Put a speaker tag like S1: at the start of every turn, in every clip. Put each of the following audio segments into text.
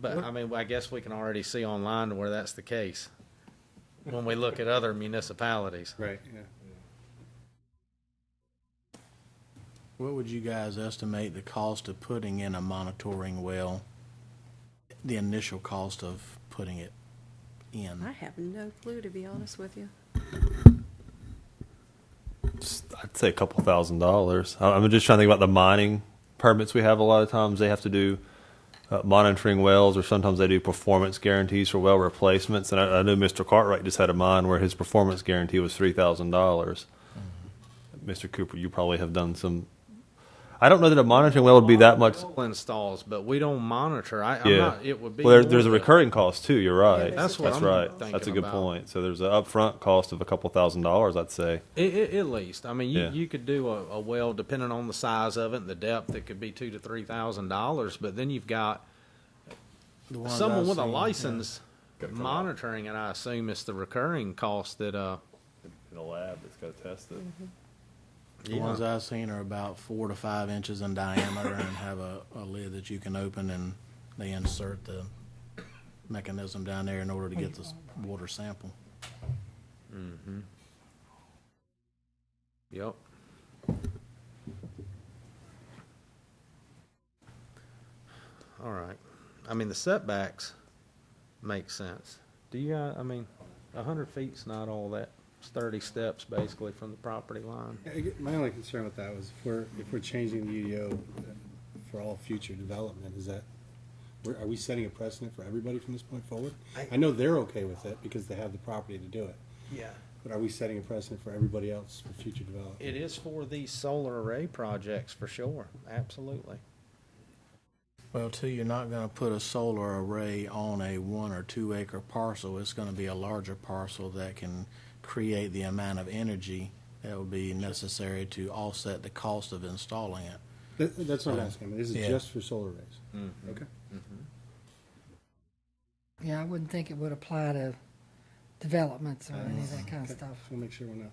S1: But I mean, I guess we can already see online where that's the case when we look at other municipalities.
S2: Right, yeah.
S3: What would you guys estimate the cost of putting in a monitoring well? The initial cost of putting it
S4: I
S3: in?
S4: have no clue, to be honest with you.
S5: I'd say a couple thousand dollars. I- I'm just trying to think about the mining permits we have. A lot of times they have to do uh, monitoring wells, or sometimes they do performance guarantees for well replacements. And I, I know Mr. Cartwright just had a mine where his performance guarantee was three thousand dollars. Mr. Cooper, you probably have done some. I don't know that a monitoring well would be that much.
S1: Well, Installs, but we be monitor. I, I'm
S5: yeah,
S1: not, it would be.
S5: Well, there, there's a
S1: more than-
S5: recurring cost too. You're right.
S4: there's
S1: That's what I'm
S5: right. That's a
S1: thinking
S5: good
S1: about.
S5: point. So there's an upfront cost of a couple thousand dollars, I'd say.
S1: I- I- at least, I mean, you,
S5: Yeah.
S1: you could do a, a well, depending on the size of it and the depth, it could be two to three thousand dollars. But then you've got
S3: The ones
S1: someone
S3: I've
S1: with a
S3: seen, yeah.
S1: license monitoring, and I assume it's the recurring cost that, uh,
S5: In a lab that's got to test it.
S3: The
S1: Yeah.
S3: ones I've seen are about four to five inches in diameter and have a, a lid that you can open and they insert the mechanism down there in order to get the s- water sample.
S1: yep. All right. I mean, the setbacks make sense. Do you, uh, I mean, a hundred feet's not all that. It's thirty steps basically from the property line.
S2: I get- My only concern with that was if we're, if we're changing the UDO for all future development, is that, we're- are we setting a precedent for everybody from this point forward? I know they're okay with it because they have the property to do it,
S1: Yeah.
S2: but are we setting a precedent for everybody else for future development?
S1: It is for these solar array projects for sure, absolutely.
S3: Well, too, you're not gonna put a solar array on a one or two acre parcel. It's gonna be a larger parcel that can create the amount of energy that would be necessary to offset the cost of installing it.
S2: That- That's what I'm asking, I mean, this is
S3: Yeah.
S2: just for solar arrays. Okay.
S6: Yeah, I wouldn't think it would apply to developments or any of that kind of
S2: Okay.
S6: stuff.
S2: We'll make sure we're not.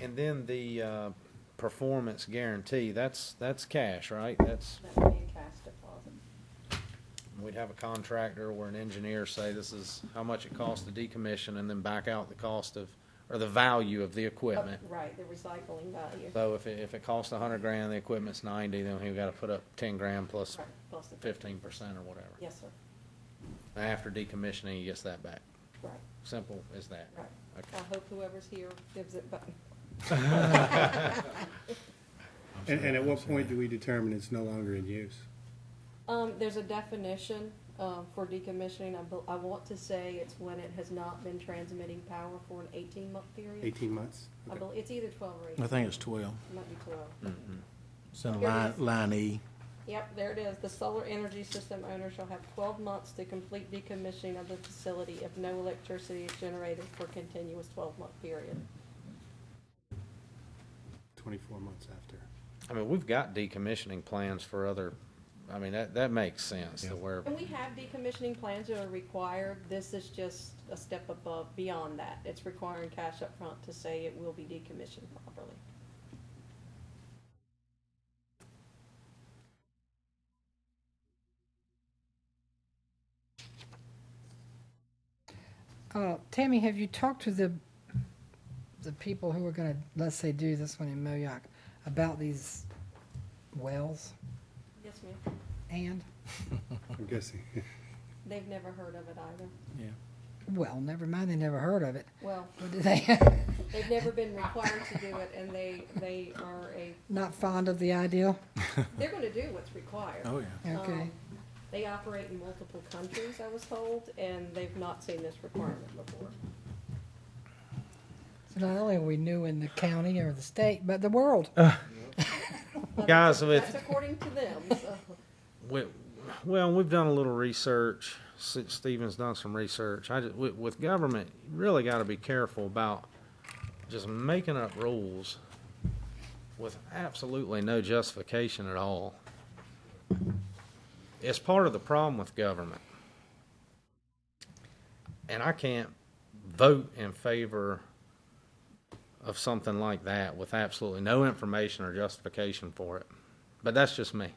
S1: And then the uh, performance guarantee, that's, that's cash, right? That's,
S7: That would be a cash deposit.
S1: we'd have a contractor or an engineer say this is how much it costs to decommission and then back out the cost of, or the value of the equipment.
S7: Oh, Right, the recycling value.
S1: So if it, if it costs a hundred grand, the equipment's ninety, then he gotta put up ten grand plus
S7: Right, plus the-
S1: fifteen percent or whatever.
S7: Yes, sir,
S1: And After decommissioning, he gets that back.
S7: right,
S1: Simple as that.
S7: right. I
S1: Okay.
S7: hope whoever's here gives it back.
S2: And, and at what point do we determine it's no longer in use?
S7: Um, there's a definition, um, for decommissioning. I, bel- I want to say it's when it has not been transmitting power for an eighteen-month period.
S2: Eighteen months?
S7: I
S2: Okay.
S7: bel it's either twelve or
S3: I
S7: eighteen,
S3: think it's twelve.
S7: might be twelve.
S3: It's in line, line E.
S7: Yep, there it is. The solar energy system owner shall have twelve months to complete decommissioning of the facility if no electricity is generated for a continuous twelve-month period.
S2: Twenty-four months after.
S1: I mean, we've got decommissioning plans for other, I mean, that, that makes sense to where,
S7: And we have decommissioning plans that are required, this is just a step above, beyond that. It's requiring cash up front to say it will be decommissioned properly.
S6: Uh, Tammy, have you talked to the, the people who are gonna, let's say, do this one in Moayoc about these wells
S7: Yes, ma'am.
S6: and,
S2: I'm guessing.
S7: They've never heard of it either.
S3: Yeah.
S6: well, never mind, they never heard of it.
S7: Well,
S6: What do they,
S7: they've never been required to do it, and they, they are a,
S6: not fond of the idea?
S7: they're gonna do what's required.
S3: Oh, yeah.
S6: Okay,
S7: Um, They operate in multiple countries, I was told, and they've not seen this requirement before.
S6: so not only are we new in the county or the state, but the world.
S7: But
S1: Guys,
S7: that's-
S1: with-
S7: That's according to them, so.
S1: we, well, we've done a little research. S- Stephen's done some research. I just, with, with government, you really gotta be careful about just making up rules with absolutely no justification at all. It's part of the problem with government. And I can't vote in favor of something like that with absolutely no information or justification for it. But that's just me.